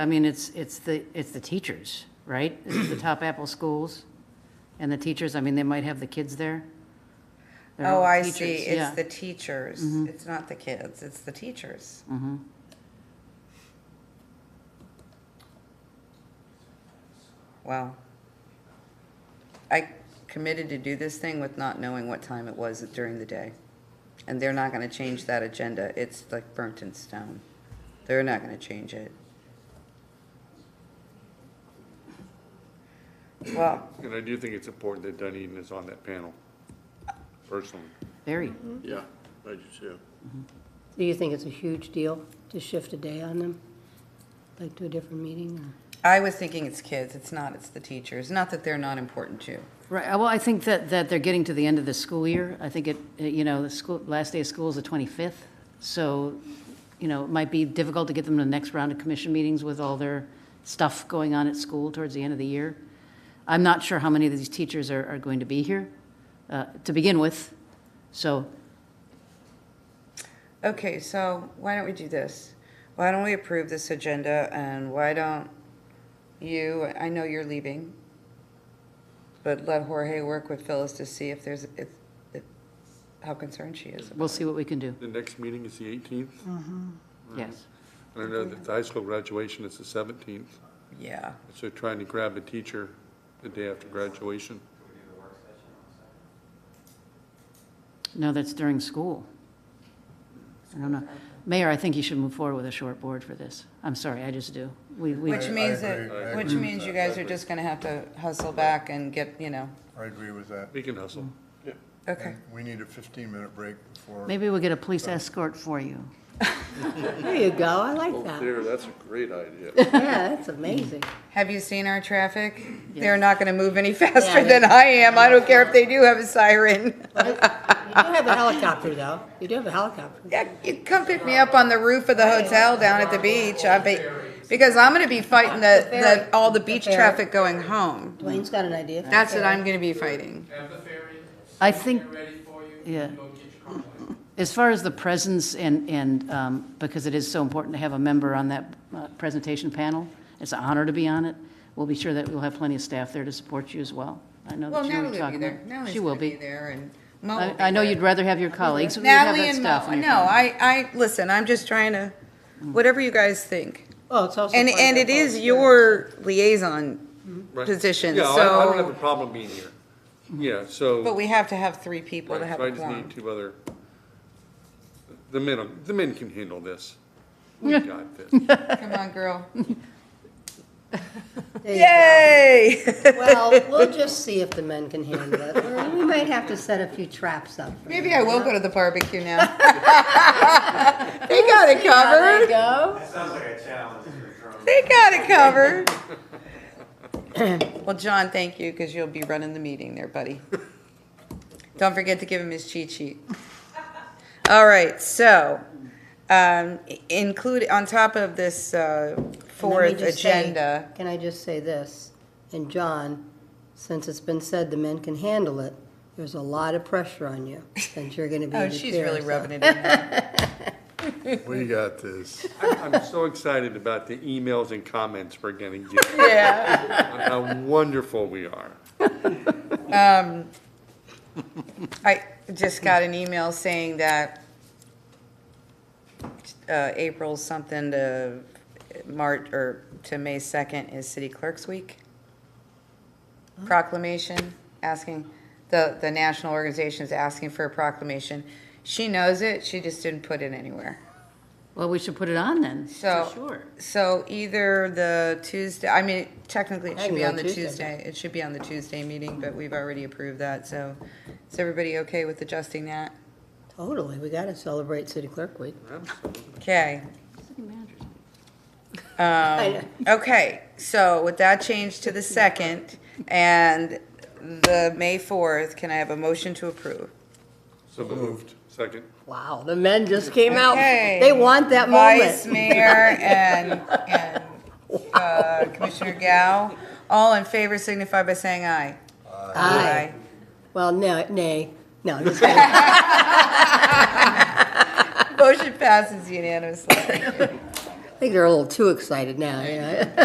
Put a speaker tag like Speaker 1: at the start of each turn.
Speaker 1: I mean, it's, it's the, it's the teachers, right? This is the top Apple schools and the teachers, I mean, they might have the kids there. They're all
Speaker 2: Oh, I
Speaker 1: teachers,
Speaker 2: see.
Speaker 1: yeah. Mm-hmm.
Speaker 2: It's the teachers. It's not the kids. It's the teachers. Wow. I committed to do this thing with not knowing what time it was during the day. And they're not going to change that agenda. It's like burnt in stone. They're not going to change it. Well,
Speaker 3: And I do think it's important that Dunedin is on that panel, personally.
Speaker 1: Very.
Speaker 4: Yeah, I do too.
Speaker 5: Do you think it's a huge deal to shift a day on them, like to a different meeting? or-
Speaker 2: I was thinking it's kids. It's not. It's the teachers. Not that they're not important too.
Speaker 1: Right, well, I think that, that they're getting to the end of the school year. I think it, you know, the school, last day of school is the 25th. So, you know, it might be difficult to get them to the next round of commission meetings with all their stuff going on at school towards the end of the year. I'm not sure how many of these teachers are, are going to be here uh, to begin with. So
Speaker 2: Okay, so why don't we do this? Why don't we approve this agenda and why don't you, I know you're leaving, but let Jorge work with Phyllis to see if there's, if, if, how concerned she is.
Speaker 1: we'll see what we can do,
Speaker 3: The next meeting is the 18th,
Speaker 1: yes.
Speaker 3: and I know that the high school graduation is the 17th,
Speaker 2: Yeah.
Speaker 3: so trying to grab a teacher the day after graduation.
Speaker 1: No, that's during school. I don't know. Mayor, I think you should move forward with a short board for this. I'm sorry, I just do. We, we,
Speaker 2: Which means
Speaker 4: agree. I
Speaker 2: that, which
Speaker 4: agree with
Speaker 2: means
Speaker 4: that.
Speaker 2: you guys are just gonna have to hustle back and get, you know,
Speaker 4: I agree with that.
Speaker 3: We can hustle.
Speaker 2: okay.
Speaker 4: And We need a 15-minute break before.
Speaker 1: maybe we'll get a police escort for you.
Speaker 5: There you go, I like that.
Speaker 6: There, that's a great idea.
Speaker 5: Yeah, that's amazing.
Speaker 2: Have you seen our traffic? They're not gonna move any faster than I am. I don't care if they do have a siren.
Speaker 5: You do have a helicopter, though. You do have a helicopter.
Speaker 2: Yeah, you come pick me up on the roof of the hotel down at the beach. I'll be, because I'm gonna be fighting the, the, all the beach traffic going home.
Speaker 5: Dwayne's got an idea.
Speaker 2: That's what I'm gonna be fighting.
Speaker 7: Have the ferry.
Speaker 1: I think,
Speaker 7: They're ready for you.
Speaker 1: Yeah.
Speaker 7: Go get your car.
Speaker 1: as far as the presence and, and, um, because it is so important to have a member on that uh, presentation panel, it's an honor to be on it. We'll be sure that we'll have plenty of staff there to support you as well. I know
Speaker 2: Well,
Speaker 1: that you were
Speaker 2: Natalie will be
Speaker 1: talking
Speaker 2: there.
Speaker 1: about.
Speaker 2: Natalie's
Speaker 1: She will
Speaker 2: gonna be
Speaker 1: be.
Speaker 2: there and Mo will
Speaker 1: I,
Speaker 2: be
Speaker 1: I know
Speaker 2: there.
Speaker 1: you'd rather have your colleagues. You'd have
Speaker 2: Natalie
Speaker 1: that
Speaker 2: and
Speaker 1: staff
Speaker 2: Mo,
Speaker 1: in your Mm.
Speaker 2: no, I, I, listen, I'm just trying to, whatever you guys think.
Speaker 5: Well, Oh, it's also.
Speaker 2: And,
Speaker 5: part of
Speaker 2: and
Speaker 5: our
Speaker 2: it is
Speaker 5: culture.
Speaker 2: your liaison
Speaker 3: Right.
Speaker 2: position,
Speaker 3: Yeah, I I don't have
Speaker 2: so,
Speaker 3: a problem being here. Yeah,
Speaker 2: but
Speaker 3: so,
Speaker 2: we have to have three people to
Speaker 3: right,
Speaker 2: have
Speaker 3: so I
Speaker 2: a
Speaker 3: just need
Speaker 2: quorum.
Speaker 3: two other, the men, the men can handle this. We got this.
Speaker 2: Come on, girl.
Speaker 5: There you go.
Speaker 2: Yay!
Speaker 5: Well, we'll just see if the men can handle it. Or We might have to set a few traps up. for
Speaker 2: Maybe
Speaker 5: them.
Speaker 2: I will go to the barbecue now. They got it
Speaker 5: There you
Speaker 2: covered.
Speaker 5: go.
Speaker 8: Sounds like a challenge you're throwing.
Speaker 2: They got it covered. Well, John, thank you, because you'll be running the meeting there, buddy. Don't forget to give him his cheat sheet. All right, so, um, i- include, on top of this, uh,
Speaker 5: And let me
Speaker 2: fourth
Speaker 5: just say-
Speaker 2: agenda.
Speaker 5: Can I just say this? And John, since it's been said the men can handle it, there's a lot of pressure on you, since you're gonna be
Speaker 2: Oh,
Speaker 5: the
Speaker 2: she's
Speaker 5: chair,
Speaker 2: really
Speaker 5: so-
Speaker 2: rubbing it in.
Speaker 4: We got this.
Speaker 3: I'm I'm so excited about the emails and comments we're getting, on
Speaker 2: Yeah.
Speaker 3: how wonderful we are.
Speaker 2: I just got an email saying that uh, April something to March, or to May 2nd is City Clerks Week. Proclamation, asking, the, the national organization is asking for a proclamation. She knows it, she just didn't put it anywhere.
Speaker 1: Well, we should put it on then, for
Speaker 2: So-
Speaker 1: sure.
Speaker 2: So either the Tuesday, I mean, technically it
Speaker 5: I
Speaker 2: should
Speaker 5: can
Speaker 2: be
Speaker 5: go
Speaker 2: on the
Speaker 5: Tuesday,
Speaker 2: Tuesday, it should be on the Tuesday meeting, but we've already approved that, so is everybody okay with adjusting that?
Speaker 5: Totally, we gotta celebrate City Clerk Week.
Speaker 2: Okay. Um,
Speaker 1: City managers.
Speaker 5: I-
Speaker 2: Okay, so with that change to the second and the May 4th, can I have a motion to approve?
Speaker 3: So moved. Second.
Speaker 5: Wow, the men just came out.
Speaker 2: Okay.
Speaker 5: Oh, They want that
Speaker 2: Vice
Speaker 5: moment.
Speaker 2: Mayor and, and uh, Commissioner Gao, all in favor signify by saying aye.
Speaker 5: Aye. Well, no, nay, no, I'm just kidding.
Speaker 2: Aye. Motion passes unanimously.
Speaker 5: think they're a little too excited now, you know?